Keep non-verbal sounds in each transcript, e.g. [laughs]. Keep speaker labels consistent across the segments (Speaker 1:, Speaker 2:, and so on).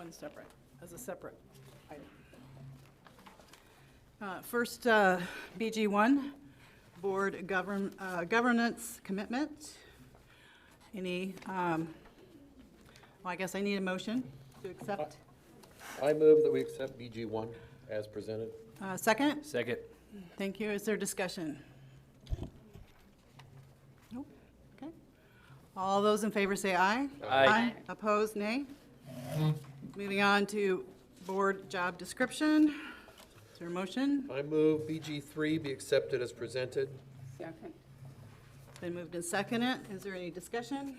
Speaker 1: on separate, as a separate item. Uh, First, uh, BG1, Board Govern- uh, Governance Commitment. Any, um, well, I guess I need a motion to accept.
Speaker 2: I move that we accept BG one as presented.
Speaker 1: Uh, Second?
Speaker 3: Second.
Speaker 1: Thank you. Is there discussion? Nope. Okay. All those in favor say aye.
Speaker 3: Aye.
Speaker 1: Opposed, nay? Moving on to board job description. Is there a motion?
Speaker 2: I move BG three be accepted as presented.
Speaker 1: Second. Been moved and seconded. Is there any discussion?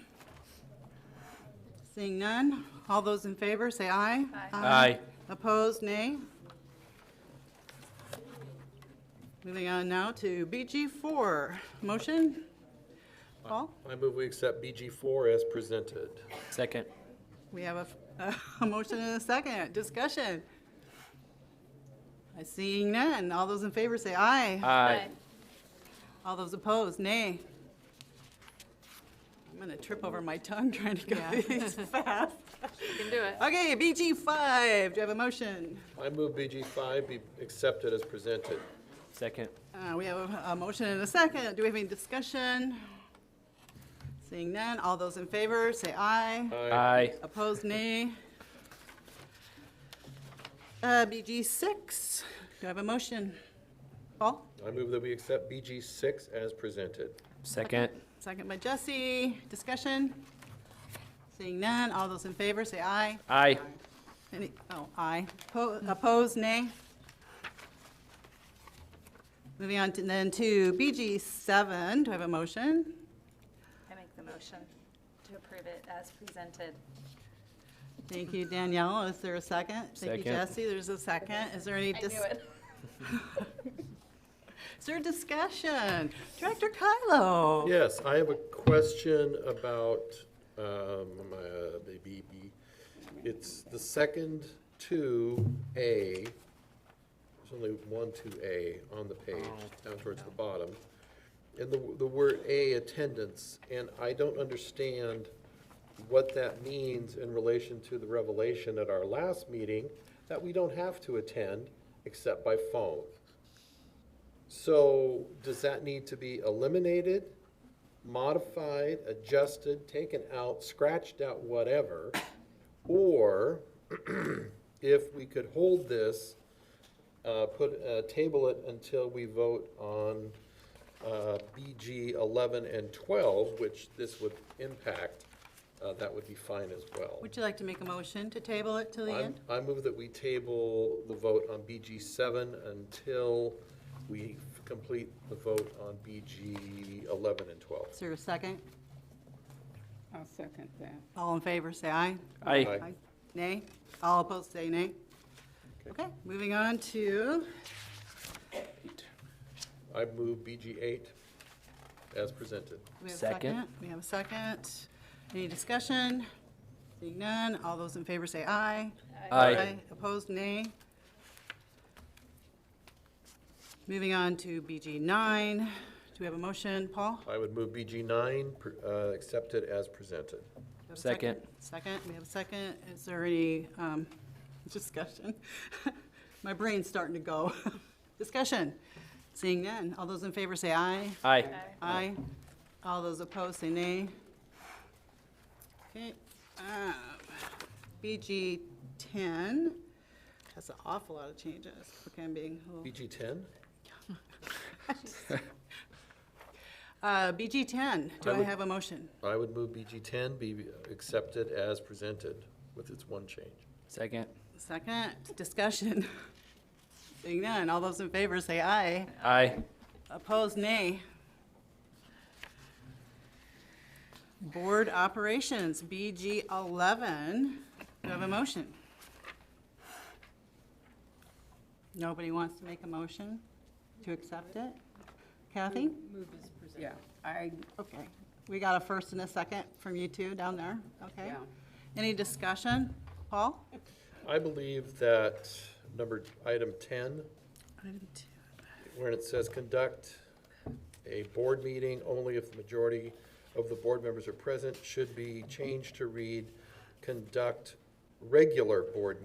Speaker 1: Seeing none. All those in favor say aye.
Speaker 3: Aye.
Speaker 1: Opposed, nay? Moving on now to BG4. Motion? Paul,
Speaker 2: I move we accept BG four as presented.
Speaker 3: Second.
Speaker 1: we have a, [laughs] a motion and a second. Discussion? I seeing none. All those in favor say aye.
Speaker 3: Aye.
Speaker 1: All those opposed, nay. I'm going to trip over my tongue [laughs] trying to go these fast.
Speaker 4: You can do it.
Speaker 1: Okay, BG5, do you have a motion?
Speaker 2: I move BG five be accepted as presented.
Speaker 3: Second.
Speaker 1: Uh, We have a- a motion and a second. Do we have any discussion? Seeing none, all those in favor, say aye.
Speaker 3: Aye.
Speaker 1: Opposed, nay. Uh, BG six, do I have a motion? Paul,
Speaker 2: I move that we accept BG six as presented.
Speaker 3: Second.
Speaker 1: second by Jesse, discussion? Seeing none, all those in favor, say aye.
Speaker 3: Aye.
Speaker 1: Any, oh, aye. Po- Opposed, nay? Moving on to, then to BG seven, do I have a motion?
Speaker 4: I make the motion to approve it as presented.
Speaker 1: Thank you, Danielle. Is there a second? Thank you,
Speaker 3: Second.
Speaker 1: Jesse. There's a second. Is there any?
Speaker 4: I
Speaker 1: dis-
Speaker 4: knew it.
Speaker 1: Is there discussion? Director Kylo?
Speaker 2: Yes, I have a question about, um, my, uh, maybe, be- it's the second two A. There's only one two A on the page, down towards the bottom. And the, the word A attendance, and I don't understand what that means in relation to the revelation at our last meeting that we don't have to attend except by phone. So does that need to be eliminated, modified, adjusted, taken out, scratched out, whatever? Or [clears throat] if we could hold this, uh, put, uh, table it until we vote on uh, BG 11 and 12, which this would impact, uh, that would be fine as well.
Speaker 1: Would you like to make a motion to table it till the
Speaker 2: I'm-
Speaker 1: end?
Speaker 2: I move that we table the vote on BG seven until we f- complete the vote on BG eleven and twelve.
Speaker 1: Is there a second?
Speaker 5: I'll second that.
Speaker 1: All in favor, say aye.
Speaker 3: Aye.
Speaker 2: Aye.
Speaker 1: Nay? All opposed, say nay. Okay, moving on to,
Speaker 2: I move BG eight as presented.
Speaker 1: we have a
Speaker 3: Second.
Speaker 1: second. We have a second. Any discussion? Seeing none, all those in favor say aye.
Speaker 3: Aye.
Speaker 1: Opposed, nay. Moving on to BG nine. Do we have a motion, Paul? Do
Speaker 2: I would move BG nine, pr- uh, accepted as presented.
Speaker 1: we have a
Speaker 3: Second.
Speaker 1: Second, we have a second. Is there any um, discussion? [laughs] My brain's starting to go. [laughs] Discussion. Seeing none. All those in favor say aye.
Speaker 3: Aye.
Speaker 1: Aye. All those opposed say nay. Okay, um, BG ten. That's an awful lot of changes. Okay, I'm being a little.
Speaker 2: BG ten?
Speaker 1: Uh, BG 10, do
Speaker 2: I
Speaker 1: I
Speaker 2: would-
Speaker 1: have a motion?
Speaker 2: I would move BG ten be accepted as presented with its one change.
Speaker 3: Second.
Speaker 1: Second, discussion. [laughs] Seeing none, all those in favor say aye.
Speaker 3: Aye.
Speaker 1: Opposed, nay. Board Operations, BG 11, do I have a motion? Nobody wants to make a motion to accept it? Kathy?
Speaker 5: Yeah, I,
Speaker 1: Okay, we got a first and a second from you two down there, okay?
Speaker 5: Yeah.
Speaker 1: Any discussion? Paul?
Speaker 2: I believe that number, item ten, where it says conduct a board meeting only if the majority of the board members are present, should be changed to read, conduct regular board